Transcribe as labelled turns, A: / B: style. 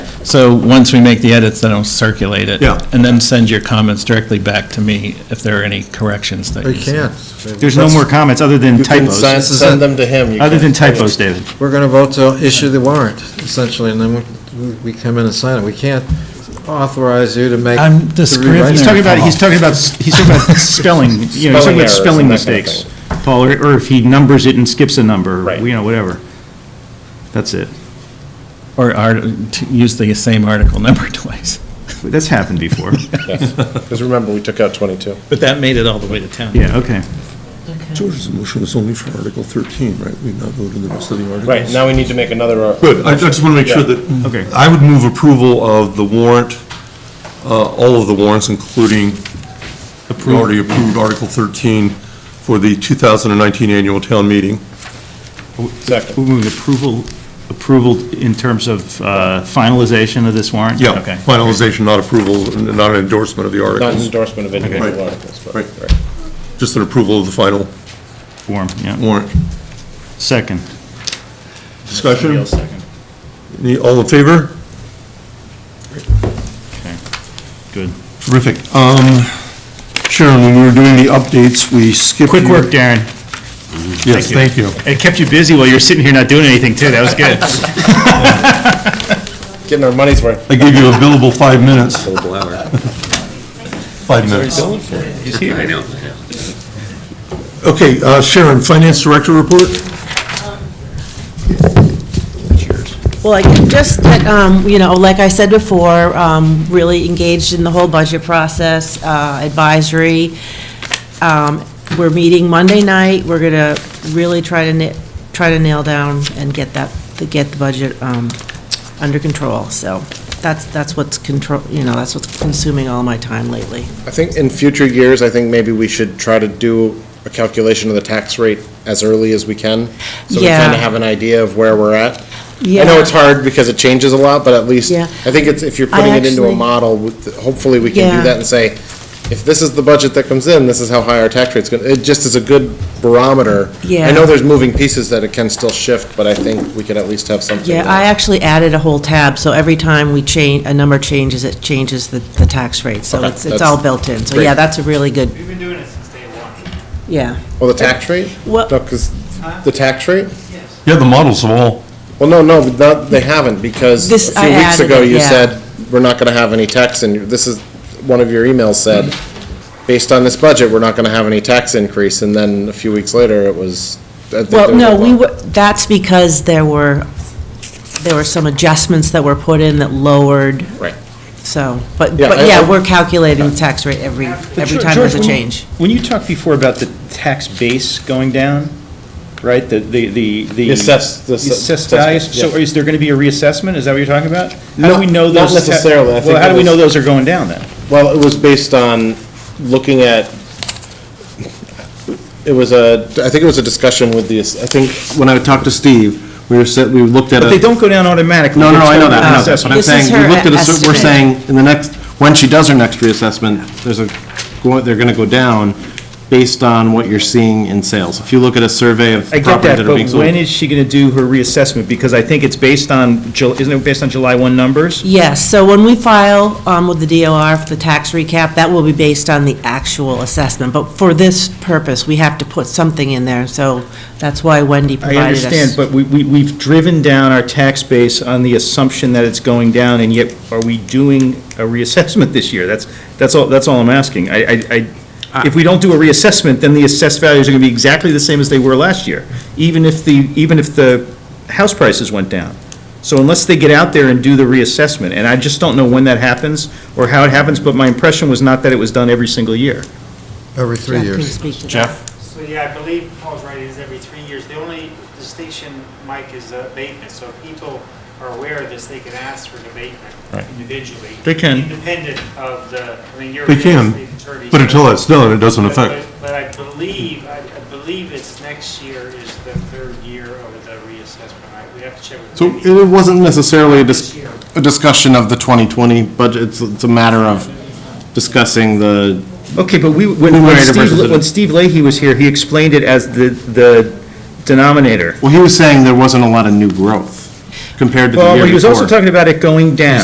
A: So once we make the edits, then I'll circulate it.
B: Yeah.
A: And then send your comments directly back to me if there are any corrections that you
B: They
A: see.
B: can't.
C: There's no more comments other than
D: You can
C: typos.
D: send, send them to him. You
C: Other than
D: can't-
C: typos, David.
B: We're going to vote to issue the warrant, essentially, and then we- we come in and sign it. We can't authorize you to make.
A: I'm the
B: to
A: scrivener.
B: rewrite
C: He's
B: it.
C: talking about, he's talking about, he's talking about spelling, you know, he's
D: Spelling
C: talking about
D: errors
C: spelling
D: and that kind of
C: mistakes, Paul, or or if he numbers it and skips a number,
D: Right.
C: you know, whatever. That's it.
A: Or art- to use the same article number twice.
C: That's happened before.
D: Yes. Because remember, we took out 22.
A: But that made it all the way to town.
C: Yeah, okay.
E: George's motion is only for Article 13, right? We've not voted the rest of the articles.
D: Right, now we need to make another. uh,
E: Good, I I just want to make sure that,
C: Okay.
E: I would move approval of the warrant, uh, all of the warrants, including the already approved Article 13 for the 2019 annual town meeting.
D: Second.
C: We're moving approval, approval in terms of uh, finalization of this warrant?
E: Yeah,
C: Okay.
E: finalization, not approval, n- not an endorsement of the
D: Not an
E: articles,
D: endorsement of individual
E: Right.
D: articles, but.
E: Right. just an approval of the final
C: Form, yeah.
E: warrant.
C: Second.
E: Discussion?
D: Neil second.
E: Any- All in favor?
C: Okay, good.
E: Terrific. Um, Sharon, when we were doing the updates, we skipped.
C: Quick
E: your-
C: work, Darren.
E: Yes,
C: Thank
E: thank you.
C: It kept you busy while you were sitting here not doing anything, too. That was good.
D: Getting our money's worth.
E: I gave you a billable five minutes. Five minutes. Okay, uh, Sharon, Finance Director report?
F: Well, I- just that, um, you know, like I said before, um, really engaged in the whole budget process, uh, advisory. Um, We're meeting Monday night. We're going to really try to, na- try to nail down and get that, to get the budget um, under control. So that's, that's what's control, you know, that's what's consuming all my time lately.
D: I think in future years, I think maybe we should try to do a calculation of the tax rate as early as we can. So we kind
F: Yeah.
D: of have an idea of where we're at. I
F: Yeah.
D: know it's hard because it changes a lot, but at least,
F: Yeah.
D: I think it's, if you're
F: I
D: putting it into a
F: actually-
D: model, with- hopefully we can do
F: Yeah.
D: that and say, if this is the budget that comes in, this is how high our tax rate's gonna, it just is a good barometer. I
F: Yeah.
D: know there's moving pieces that it can still shift, but I think we could at least have something.
F: Yeah, I actually added a whole tab, so every time we change, a number changes, it changes the, the tax rate. So
D: Okay,
F: it's, it's
D: that's
F: all built in. So
D: great.
F: yeah, that's a really good,
G: We've been doing it since day one.
F: yeah.
D: Well, the tax rate?
F: What-
D: No, 'cause the tax rate?
E: Yeah, the models of all.
D: Well, no, no, but not, they haven't, because
F: This-
D: a
F: I
D: few weeks
F: added
D: ago,
F: it,
D: you
F: yeah.
D: said, we're not gonna have any tax, and this is, one of your emails said, based on this budget, we're not gonna have any tax increase, and then a few weeks later, it was. I think
F: Well,
D: there was
F: no,
D: a
F: we
D: bump.
F: were, that's because there were, there were some adjustments that were put in that lowered.
D: Right.
F: So, but,
D: Yeah, I-
F: but
D: I-
F: yeah, we're calculating the tax rate every, every time
C: George,
F: there's a
C: when you-
F: change.
C: When you talked before about the tax base going down, right, the, the, the. the
D: Assessed- the assessed-
C: Assessed values, so
D: yeah.
C: is there going to be a reassessment, is that what you're talking about? How
D: Not-
C: do we know
D: not
C: those? ta-
D: necessarily. I think
C: Well, how
D: it
C: do we
D: was-
C: know those are going down then?
D: Well, it was based on looking at, it was a, I think it was a discussion with the, I think, when I talked to Steve, we were, said- we looked at.
C: But
D: a-
C: they don't go down automatically.
H: No, no, no, I know that, I know that,
C: Assessment.
H: but I'm
F: This is
H: saying, we
F: her
H: looked at, a cer- we're
F: estimate.
H: saying, in the next, when she does her next reassessment, there's a, go- they're gonna go down based on what you're seeing in sales. If you look at a survey of
C: I get
H: properties
C: that,
H: that are
C: but
H: being sold.
C: when is she going to do her reassessment? Because I think it's based on, Ju- isn't it based on July 1 numbers?
F: Yes, so when we file um, with the DOR for the tax recap, that will be based on the actual assessment. But for this purpose, we have to put something in there, so that's why Wendy
C: I
F: provided us.
C: understand, but we, we- we've driven down our tax base on the assumption that it's going down, and yet are we doing a reassessment this year? That's, that's all, that's all I'm asking. I, I- I, if we don't do a reassessment, then the assessed values are gonna be exactly the same as they were last year, even if the, even if the house prices went down. So unless they get out there and do the reassessment, and I just don't know when that happens or how it happens, but my impression was not that it was done every single year.
B: Every
F: Jeff,
B: three
F: can you
B: years.
F: speak to that?
G: So, yeah, I believe Paul's right, it is every three years. The only distinction, Mike, is uh, abatement, so if people are aware of this, they can ask for an abatement individually.
C: They can.
G: Independent of the, I mean, you're.
E: They can,
G: the attorney.
E: but until that's done, it doesn't
G: But-
E: affect.
G: But but I believe, I I believe it's next year is the third year of the reassessment. I- We have to check with.
H: So
G: Wendy.
H: it wasn't necessarily a dis- a discussion of the 2020 budget, it's, it's a matter of discussing the,
C: Okay, but we, when, when
H: Numerator
C: Steve,
H: versus the-
C: when Steve Leahy was here, he explained it as the, the denominator.
H: well, he was saying there wasn't a lot of new growth compared to the year
C: Well,
H: before.
C: he was also talking about it going down.